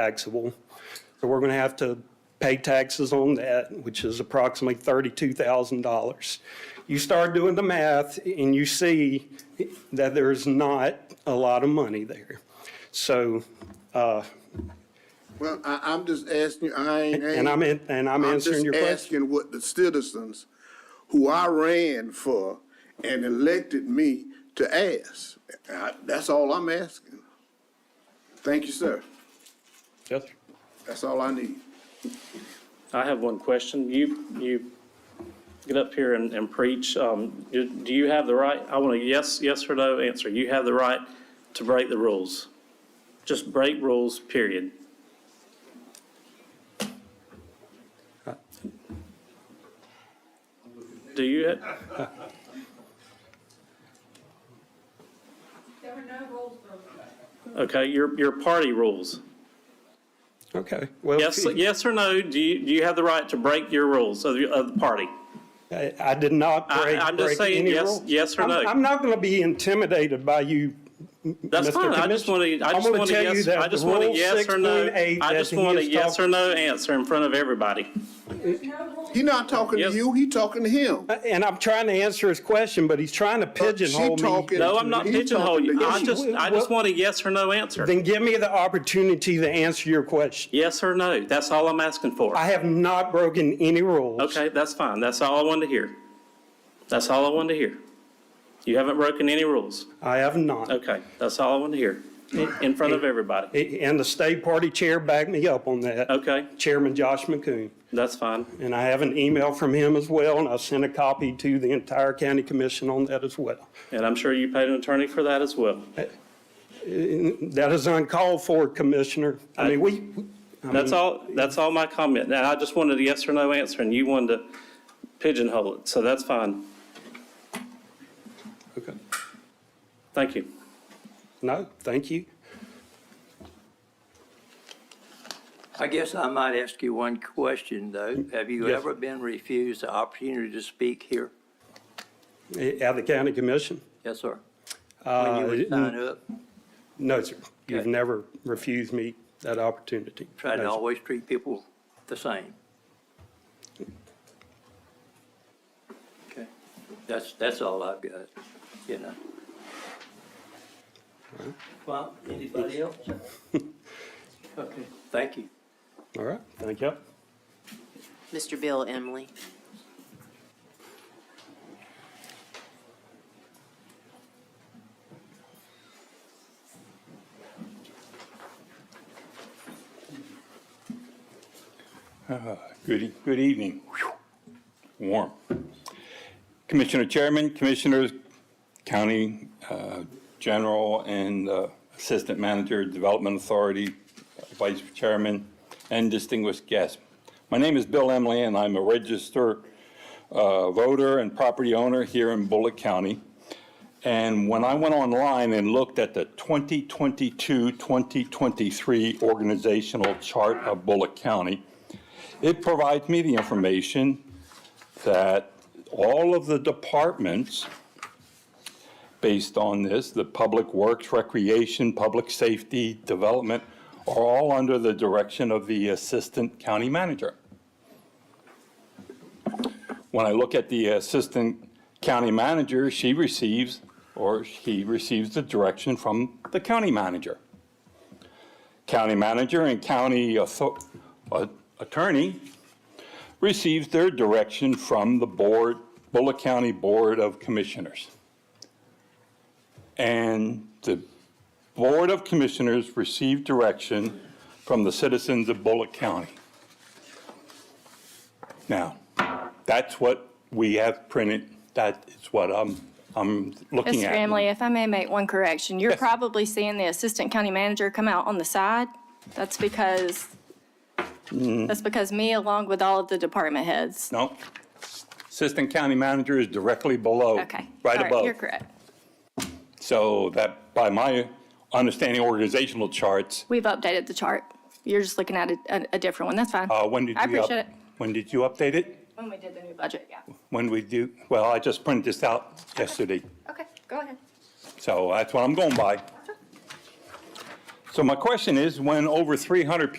taxable. So we're going to have to pay taxes on that, which is approximately $32,000. You start doing the math and you see that there's not a lot of money there. So, uh, Well, I, I'm just asking you, I ain't. and I'm, in- and I'm answering your I'm just question. asking what the citizens who I ran for and elected me to ask. I- That's all I'm asking. Thank you, sir. Yes. That's all I need. I have one question. You, you get up here and, and preach. Um, do do you have the right, I want a yes, yes or no answer. You have the right to break the rules. Just break rules, period. Do you, There were no rules broken. okay, your, your party rules. Okay. Well, Yes, yes or no, do you, do you have the right to break your rules of, your- of the party? I I did not I- break, I'm break just saying any yes- rule. yes or I'm- no. I'm not going to be intimidated by you, That's Mr. fine. I just want to, I I'm just gonna want to tell you yes, that I just the want a rule yes or no. 6.8 I that just he want a is yes or talk- no answer in front of everybody. There's no rules. He not talking to Yes. you, he talking to him. And I'm trying to answer his question, but he's trying to pigeonhole me. talking- No, I'm not He's pigeonholing talking you. to I you. just, I just want a yes or no answer. Then give me the opportunity to answer your question. Yes or no. That's all I'm asking for. I have not broken any rules. Okay, that's fine. That's all I wanted to hear. That's all I wanted to hear. You haven't broken any rules. I have not. Okay, that's all I wanted to hear, in- in front of everybody. A- And the state party chair backed me up on that. Okay, Chairman Josh McCoon. that's fine. And I have an email from him as well, and I sent a copy to the entire county commission on that as well. And I'm sure you paid an attorney for that as well. That is uncalled for, Commissioner. I mean, we, That's all, that's all my comment. Now, I just wanted a yes or no answer, and you wanted to pigeonhole it, so that's fine. Okay. Thank you. no, thank you. I guess I might ask you one question, though. Have you Yes. ever been refused the opportunity to speak here? Eh, At the county commission? Yes, sir. When you would Uh, sign up, No, sir. You've Okay. never refused me that opportunity. try No, to sir. always treat people the same. Okay, that's, that's all I've got, you know. Well, anybody else? Okay, thank you. All right, thank you. Mr. Bill Emily. Good, e- good evening. Whew. Warm. Commissioner Chairman, Commissioners, County uh, General and uh, Assistant Manager, Development Authority, Vice Chairman, and distinguished guests. My name is Bill Emily, and I'm a registered uh, voter and property owner here in Bullock County. And when I went online and looked at the 2022-2023 organizational chart of Bullock County, it provides me the information that all of the departments, based on this, the Public Works, Recreation, Public Safety, Development, are all under the direction of the Assistant County Manager. When I look at the Assistant County Manager, she receives, or he receives the direction from the County Manager county manager and county author- uh, attorney receives their direction from the board, Bullock County Board of Commissioners. And the Board of Commissioners receive direction from the citizens of Bullock County. Now, that's what we have printed. That is what I'm, I'm looking Mr. at. Emily, if I may make one correction, you're Yes. probably seeing the assistant county manager come out on the side. That's because, Mm. that's because me, along with all of the department heads. No. Assistant County Manager is directly below. Okay. Oh, Right All above. You're correct. So that, by my understanding, organizational charts, We've updated the chart. You're just looking at a, a- a different one. That's fine. uh, when did you? I up- appreciate it. When did you update it? When we did the new budget, yeah. When we do, well, I just printed this out yesterday, Okay, go ahead. so that's what I'm going by. So my question is, when over 300 people